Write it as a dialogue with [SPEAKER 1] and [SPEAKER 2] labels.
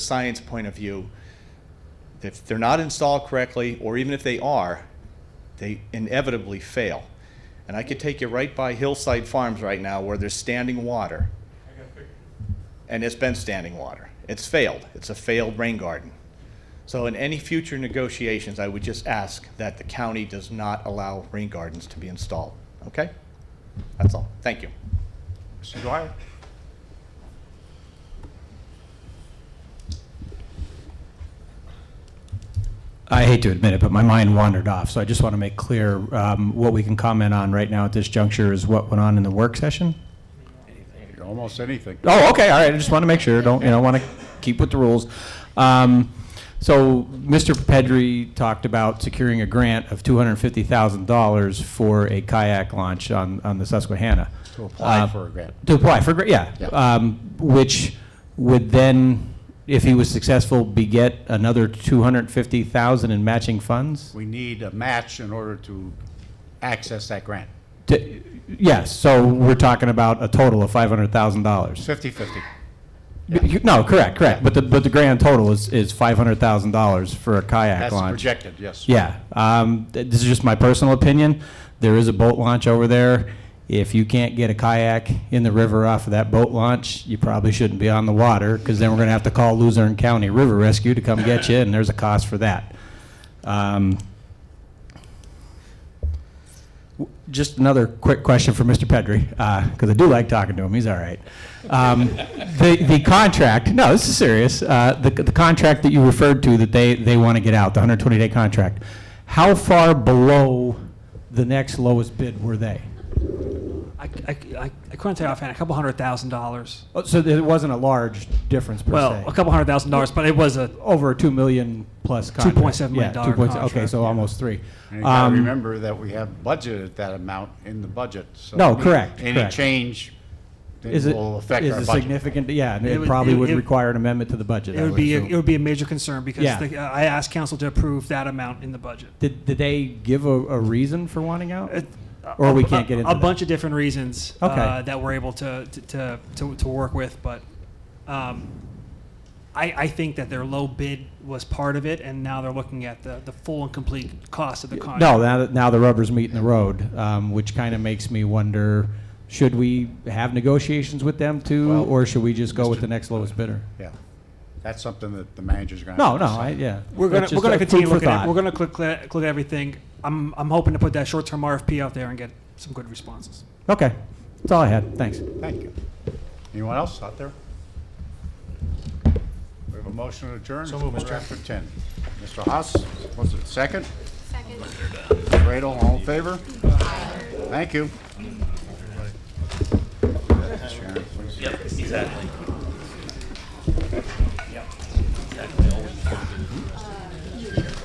[SPEAKER 1] science point of view, if they're not installed correctly, or even if they are, they inevitably fail. And I could take you right by Hillside Farms right now where there's standing water. And it's been standing water. It's failed. It's a failed rain garden. So in any future negotiations, I would just ask that the county does not allow rain gardens to be installed, okay? That's all. Thank you.
[SPEAKER 2] Mr. Dwyer?
[SPEAKER 3] I hate to admit it, but my mind wandered off, so I just want to make clear um, what we can comment on right now at this juncture is what went on in the work session?
[SPEAKER 2] Almost anything.
[SPEAKER 3] Oh, okay, all right, I just want to make sure, don't, you know, want to keep with the rules. Um, So, Mr. Pedri talked about securing a grant of $250,000 for a kayak launch on, on the Susquehanna.
[SPEAKER 2] To apply
[SPEAKER 3] Uh,
[SPEAKER 2] for a grant.
[SPEAKER 3] To apply for, gra- yeah.
[SPEAKER 2] Yeah.
[SPEAKER 3] Um, Which would then, if he was successful, beget another 250,000 in matching funds?
[SPEAKER 2] We need a match in order to access that grant.
[SPEAKER 3] To- Yes, so we're talking about a total of five hundred thousand dollars.
[SPEAKER 2] Fifty-fifty.
[SPEAKER 3] No, correct, correct, but the, but the grand total is, is five hundred thousand dollars for a kayak
[SPEAKER 2] That's
[SPEAKER 3] launch.
[SPEAKER 2] projected, yes.
[SPEAKER 3] Yeah, um, th- this is just my personal opinion, there is a boat launch over there. If you can't get a kayak in the river off of that boat launch, you probably shouldn't be on the water, because then we're gonna have to call Luzerne County River Rescue to come get you, and there's a cost for that. Um, Just another quick question for Mr. Pedri, because I do like talking to him. He's all right. Um, the, the contract, no, this is serious. Uh, the, the contract that you referred to that they, they want to get out, the 120 day contract, how far below the next lowest bid were they?
[SPEAKER 4] I, I, I, I couldn't tell you offhand. A couple hundred thousand dollars.
[SPEAKER 3] Oh, So there wasn't a large difference per
[SPEAKER 4] Well,
[SPEAKER 3] se.
[SPEAKER 4] a couple hundred thousand dollars, but it was a.
[SPEAKER 3] Over a two million plus contract.
[SPEAKER 4] 2.7 million
[SPEAKER 3] yeah,
[SPEAKER 4] dollar
[SPEAKER 3] 2.7 Okay,
[SPEAKER 4] contract,
[SPEAKER 3] so
[SPEAKER 4] yeah.
[SPEAKER 3] almost three.
[SPEAKER 2] And you gotta
[SPEAKER 3] Um,
[SPEAKER 2] remember that we have budgeted that amount in the budget, so.
[SPEAKER 3] No, correct,
[SPEAKER 2] Any
[SPEAKER 3] correct.
[SPEAKER 2] change it
[SPEAKER 3] is it,
[SPEAKER 2] will affect
[SPEAKER 3] is
[SPEAKER 2] our
[SPEAKER 3] it
[SPEAKER 2] budget.
[SPEAKER 3] significant? Yeah, and
[SPEAKER 4] It
[SPEAKER 3] it,
[SPEAKER 4] would-
[SPEAKER 3] probably
[SPEAKER 4] it-
[SPEAKER 3] would
[SPEAKER 4] it-
[SPEAKER 3] require an amendment to the budget.
[SPEAKER 4] It
[SPEAKER 3] I
[SPEAKER 4] would be a,
[SPEAKER 3] assume.
[SPEAKER 4] it would be a major concern because
[SPEAKER 3] Yeah.
[SPEAKER 4] the, uh, I asked council to approve that amount in the budget.
[SPEAKER 3] Did, did they give a, a reason for wanting out?
[SPEAKER 4] It-
[SPEAKER 3] Or we
[SPEAKER 4] a-
[SPEAKER 3] can't get into
[SPEAKER 4] a
[SPEAKER 3] that.
[SPEAKER 4] bunch of different reasons
[SPEAKER 3] Okay.
[SPEAKER 4] uh, that we're able to to, to, to to work with, but um, I, I think that their low bid was part of it, and now they're looking at the, the full and complete cost of the contract.
[SPEAKER 3] No, now, that- now the rubber's meeting the road, um, which kind of makes me wonder, should we have negotiations with them too?
[SPEAKER 2] Well,
[SPEAKER 3] Or should we just go with the next lowest bidder?
[SPEAKER 2] Yeah. That's something that the manager's gonna.
[SPEAKER 3] No,
[SPEAKER 2] have to
[SPEAKER 3] no,
[SPEAKER 2] decide.
[SPEAKER 3] I, yeah.
[SPEAKER 4] We're gonna,
[SPEAKER 3] That's
[SPEAKER 4] we're
[SPEAKER 3] just
[SPEAKER 4] gonna
[SPEAKER 3] a food
[SPEAKER 4] continue
[SPEAKER 3] for
[SPEAKER 4] looking at,
[SPEAKER 3] thought.
[SPEAKER 4] we're gonna click, click look at everything. I'm, I'm hoping to put that short-term RFP out there and get some good responses.
[SPEAKER 3] Okay, that's all I had, thanks.
[SPEAKER 2] Thank you. Anyone else out there? We have a motion to adjourn. So move, Mr. After ten. Mr. Haas, was it second?
[SPEAKER 5] Second.
[SPEAKER 2] Radel, all in favor? Thank you. Sharon, please.